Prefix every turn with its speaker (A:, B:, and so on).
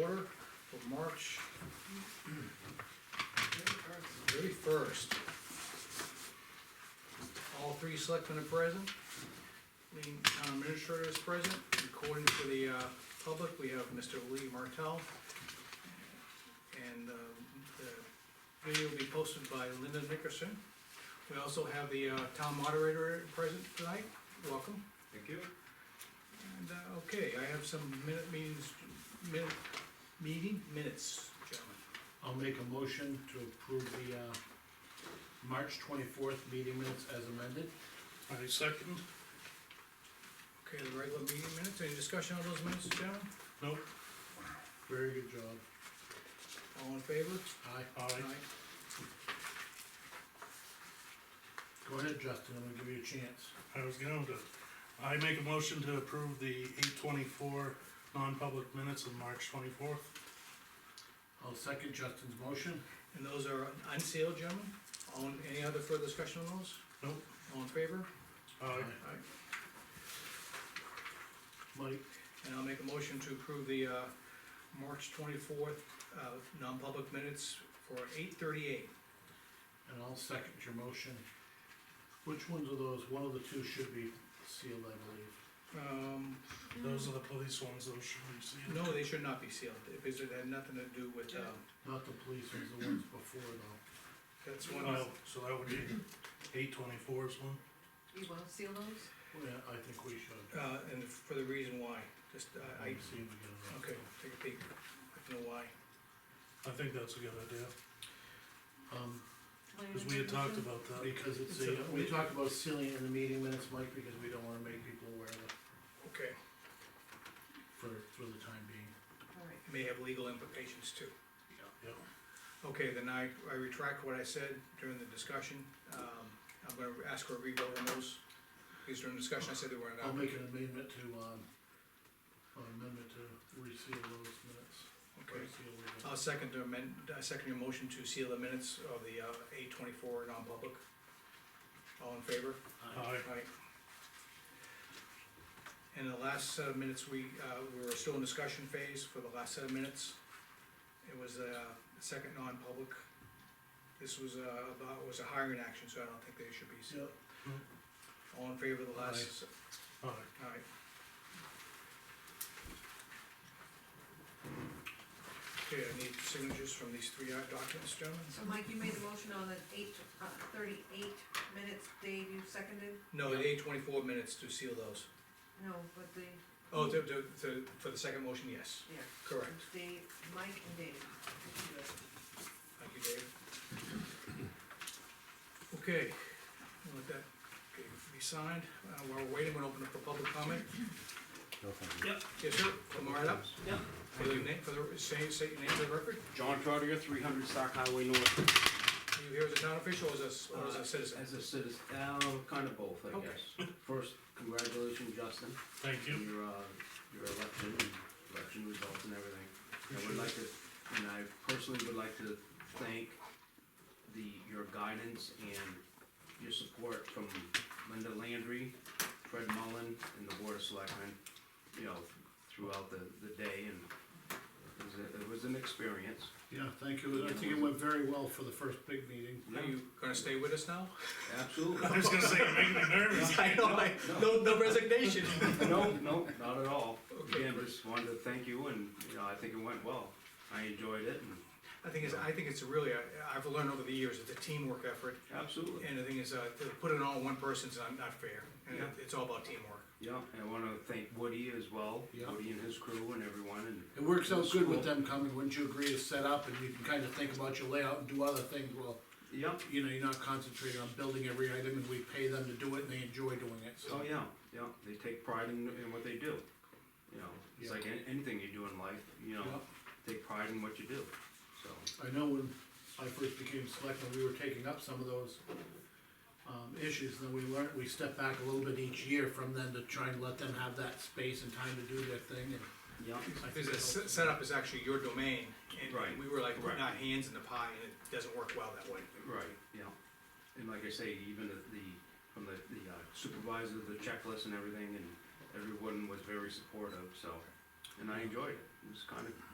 A: order for March thirty-first. All three selectmen are present, the town administrator is present, recording for the, uh, public, we have Mr. Lee Martell. And, uh, the video will be posted by Linda Nickerson. We also have the, uh, town moderator present tonight, welcome.
B: Thank you.
A: And, uh, okay, I have some minute meetings, minute, meeting minutes, gentlemen.
C: I'll make a motion to approve the, uh, March twenty-fourth meeting minutes as amended.
D: I second.
A: Okay, the regular meeting minutes, any discussion on those minutes, gentlemen?
D: Nope.
C: Very good job.
A: All in favor?
C: Aye.
D: Aye.
C: Go ahead, Justin, I'm gonna give you a chance.
D: I was going to. I make a motion to approve the eight twenty-four non-public minutes of March twenty-fourth.
C: I'll second Justin's motion.
A: And those are unsealed, gentlemen? On, any other further discussion on those?
D: Nope.
A: All in favor?
D: Aye.
A: Aye.
C: Mike,
A: And I'll make a motion to approve the, uh, March twenty-fourth, uh, non-public minutes for eight thirty-eight.
C: and I'll second your motion. Which ones of those, one of the two should be sealed, I believe.
A: Um,
D: Those are the police ones, those should be seen.
A: no, they should not be sealed, because it had nothing to do with, um,
C: Not the police ones, the ones before though.
A: that's one,
D: Oh, so that would be eight twenty-four's one.
E: You wanna seal those?
C: Oh, Yeah, I think we should.
A: uh, and for the reason why, just, uh, I,
C: I've seen them again.
A: Okay, take a peek, I don't know why.
D: I think that's a good idea,
C: Um,
D: cause we had talked about that.
C: because it's
A: It's
C: a,
A: a-
C: we talked about sealing it in the meeting minutes, Mike, because we don't wanna make people aware of it
A: Okay,
C: for, for the time being.
E: Alright,
A: may have legal implications too.
D: Yeah.
A: Okay, then I, I retract what I said during the discussion, um, I'm gonna ask for a revote on those. Because during discussion, I said they were
C: I'll
A: not,
C: make an amendment to, um, an amendment to reseal those minutes.
A: okay.
C: Reseal the-
A: I'll second to amend, I second your motion to seal the minutes of the, uh, eight twenty-four non-public. All in favor?
C: Aye.
D: Aye,
A: Right. And the last set of minutes, we, uh, we were still in discussion phase for the last set of minutes. It was, uh, the second non-public. This was, uh, about, was a hiring action, so I don't think they should be,
C: Yep.
A: all in favor of the last,
D: aye.
A: alright. Okay, I need signatures from these three uh, documents, gentlemen?
E: so Mike, you made the motion on the eight, uh, thirty-eight minutes, Dave, you seconded?
A: No, the eight twenty-four minutes to seal those.
E: No, but the,
A: Oh, to, to, to, for the second motion, yes,
E: yeah.
A: correct.
E: It's Dave, Mike and Dave.
A: Thank you, Dave. Okay, I'll let that be signed, uh, while we're waiting, we're gonna open up for public comment. Yes, sir, come right up. Yeah. For the name, for the, say, say your name for the record,
F: John Trotter, three hundred Stock Highway North.
A: are you here as a town official or as a, s- or as
F: Uh,
A: a citizen?
F: As a citizen, uh, kind of both, I
A: Okay.
F: guess. First, congratulations, Justin,
D: Thank
F: on
D: you.
F: your, uh, your election, and election results and everything. I would like to, and I personally would like to thank the, your guidance and your support from Linda Landry, Fred Mullen, and the Board of Selectmen, you know, throughout the, the day, and it was, a- it was an experience.
C: Yeah, thank you, I think it went very well for the first big meeting.
A: Are you gonna stay with us now?
F: Absolutely.
D: I was gonna say, you're making me nervous.
A: I know, I, no, no resignation.
F: No, no, not at all.
A: Okay.
F: Again, just wanted to thank you and, you know, I think it went well. I enjoyed it and
A: I think it's, I think it's really, I- I've learned over the years, it's a teamwork effort,
F: absolutely.
A: and the thing is, uh, to put it on one person's not, not fair, and
F: Yeah.
A: it's all about teamwork.
F: Yeah, and I wanna thank Woody as well,
C: Yeah.
F: Woody and his crew and everyone and.
C: It works out good with them coming, wouldn't you agree, to set up, and you can kinda think about your layout and do other things, well,
F: Yeah,
C: you know, you're not concentrating on building every item, and we pay them to do it, and they enjoy doing it,
F: oh
C: so.
F: yeah, yeah, they take pride in, in what they do. You know, it's
C: Yeah.
F: like an- anything you do in life, you know,
C: Yeah.
F: take pride in what you do, so.
C: I know when I first became selectman, we were taking up some of those um, issues, and then we learned, we stepped back a little bit each year from then to try and let them have that space and time to do their thing, and
F: Yeah,
C: I think
A: Because the
C: it
A: se- setup is actually your domain,
F: Right.
A: and we were like, putting
F: Right.
A: our hands in the pie, and it doesn't work well that way.
F: right, yeah. And like I say, even the, the, from the, the uh, supervisor, the checklist and everything, and everyone was very supportive, so, and I enjoyed it. It was kind of